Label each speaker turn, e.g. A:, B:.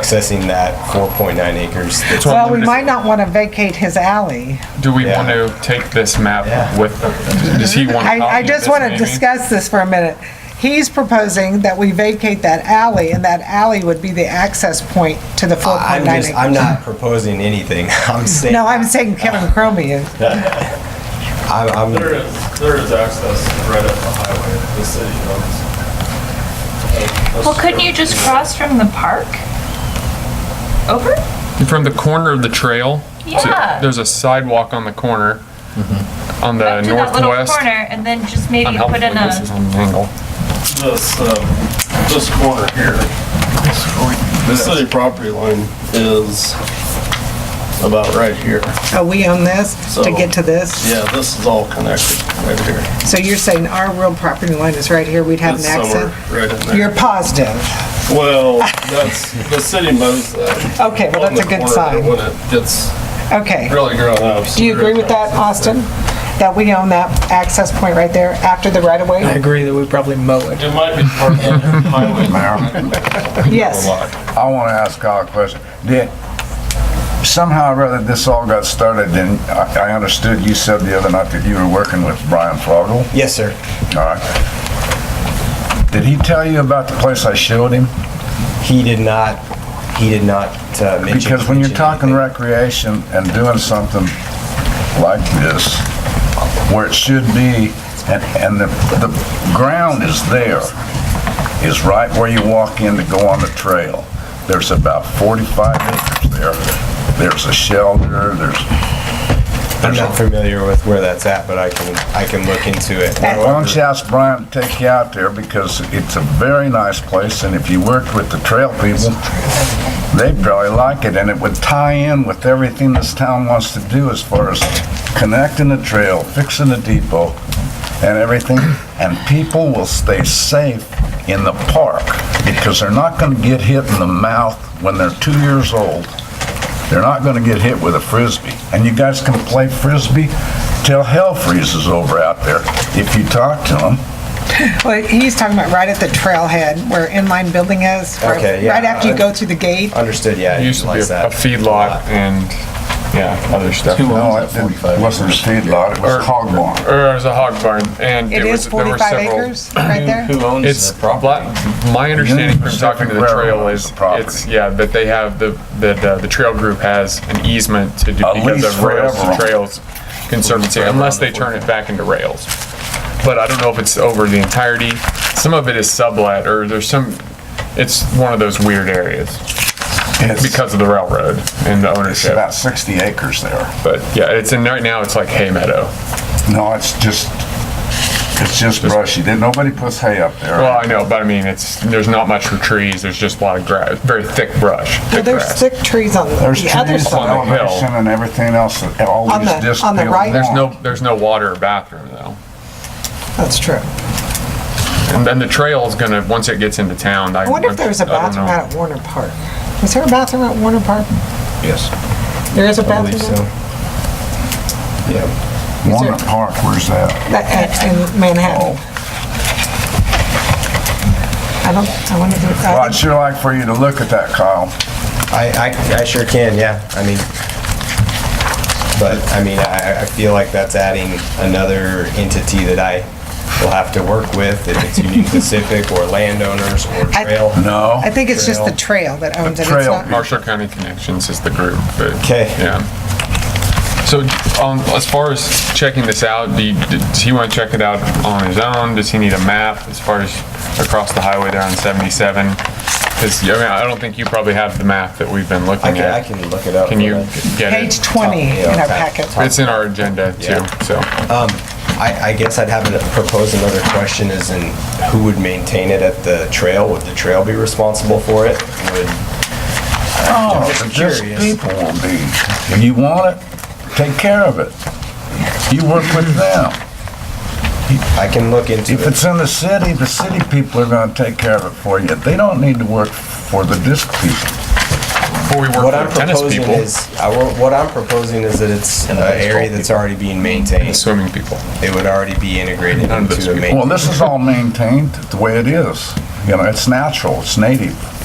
A: accessing that 4.9 acres. that's-
B: what-
C: Well, we might not want to vacate his alley.
B: Do we
A: Yeah.
B: want to take this map
A: Yeah.
B: with, does he want? a
C: I,
B: copy
C: I
B: of
C: just
B: this
C: want to
B: maybe?
C: discuss this for a minute. He's proposing that we vacate that alley, and that alley would be the access point to the
A: I'm
C: 4.9
A: just, I'm
C: acres.
A: not proposing anything. I'm saying,
C: No, I'm saying Kevin Cromie is.
A: I'm, I'm,
D: There is, there is access right up the highway, the city owns. Uh,
E: Well, couldn't you just cross from the park? Over?
B: From the corner of the trail? to-
E: Yeah.
B: There's a sidewalk on the corner,
A: Mm-hmm.
B: on the
E: Up to that little
B: northwest.
E: corner and then just maybe
B: Unhelpful,
E: put in
B: this is
E: a,
B: on an angle.
D: This, um, this corner here, the city property line is about right here.
C: Oh, we own this to get to this?
D: Yeah, this is all connected right here.
C: So you're saying our real property line is right here, we'd have an
D: It's somewhere
C: access?
D: right in
C: You're
D: there.
C: positive?
D: Well, that's, the city mows that.
C: Okay, well,
D: on
C: that's a
D: the
C: good
D: corner
C: sign.
D: When it gets
C: Okay.
D: really grown up.
C: Do you agree with that, Austin? That we own that access point right there after the
F: I
C: right-of-way?
F: agree that we probably mow it.
D: It might be part of the highway.
C: Yes.
G: I want to ask Kyle a question. Did, somehow or other, this all got started, and I I understood you said the other night that you were working with Brian Froggle.
A: yes, sir.
G: All right. Did he tell you about the place I showed him?
A: He did not, he did not uh, mention.
G: Because when you're
A: mention
G: talking
A: anything.
G: recreation and doing something like this, where it should be, and, and the, the ground is there, is right where you walk in to go on the trail. There's about 45 acres there. There's a shelter, there's,
A: I'm not familiar with where that's at, but I can, I can look into it.
G: why don't you ask Brian to take you out there because it's a very nice place and if you worked with the trail people, they'd probably like it and it would tie in with everything this town wants to do as far as connecting the trail, fixing the depot and everything. And people will stay safe in the park because they're not going to get hit in the mouth when they're two years old. They're not going to get hit with a frisbee. And you guys can play frisbee till hell freezes over out there if you talk to them.
C: Well, he's talking about right at the trailhead where inline building is. where-
A: Okay, yeah.
C: Right after you go through the gate.
A: Understood, yeah. I
B: It used to be
A: utilize
B: a a
A: that.
B: feedlot and, yeah, other stuff.
G: No, it didn't- wasn't a feedlot, it was a hog barn.
B: Or it was a hog barn and
C: It
B: it was,
C: is
B: there were
C: 45
B: several.
C: acres right there?
B: It's, bla- my understanding from talking to the trail is,
G: Pacific Railroad
B: it's, yeah, that they have, the, that uh, the trail group has an easement to do
G: A
B: because
G: lease
B: of rails to
G: forever.
B: trails conservancy, unless they turn it back into rails. But I don't know if it's over the entirety. Some of it is sublet or there's some, it's one of those weird areas
G: It's
B: because of the railroad and the
G: it's
B: ownership.
G: about 60 acres there.
B: But yeah, it's in, right now, it's like hay meadow.
G: No, it's just, it's just brushy. Then Nobody puts hay up
B: Well,
G: there.
B: I know, but I mean, it's, there's not much for trees. There's just a lot of grass, very thick brush,
C: Well,
B: thick
C: There's
B: grass.
C: thick trees on the
G: There's
C: other
G: trees,
B: side.
C: side.
B: On the hill.
G: elevation and everything else, that
C: On
G: always
C: the-
G: just.
C: on the
G: built
C: right?
B: There's
G: along.
B: no, there's no water or bathroom though.
C: That's true.
B: And then the trail's gonna, once it gets into town, I.
C: I wonder if there's a
B: I don't
C: bathroom
B: know.
C: out at Warner Park. Is there a bathroom at Warner Park?
G: Yes.
C: There is a
A: I believe
C: bathroom?
A: so. Yeah.
G: Walnut Park, where's that?
C: That- at- In
B: Oh.
C: Manhattan? I don't, I wonder if there-
G: Well,
C: I
G: I'd sure like for you to look at that, Kyle.
A: I, I, I sure can, yeah. I mean, but I mean, I, I feel like that's adding another entity that I will have to work with if it's Union Pacific or landowners or
C: I-
A: trail.
G: No?
C: I think it's just the trail that owns it. It's
G: trail.
C: not-
B: Marshall County Connections is the group, but.
A: 'Kay.
B: Yeah. So, um, as far as checking this out, do you, does he wanna check it out on his own? Does he need a map as far as across the highway there on seventy-seven? Cause, I mean, I don't think you probably have the map that we've been
A: I
B: looking
A: can, I
B: at.
A: can look it up.
B: Can you get it?
C: Page 20 in our packet.
B: It's in our agenda too,
A: Yeah.
B: so.
A: I, I guess I'd have to propose another question as in who would maintain it at the trail? Would the trail be responsible for it? Would,
G: Oh,
A: just
G: but just
A: curious.
G: people will be. If you want it, take care of it. You work with them.
A: I can look into
G: If
A: it.
G: it's in the city, the city people are gonna take care of it for you. They don't need to work for the disc people.
B: Before we
A: What
B: work
A: I'm
B: with tennis
A: proposing
B: people,
A: is, I wa- what I'm proposing is that it's an area that's already being maintained.
B: swimming people.
A: It would already be integrated
B: None of those
A: into a
B: people.
A: main.
G: Well, this is all maintained the way it is. You know, it's natural, it's native.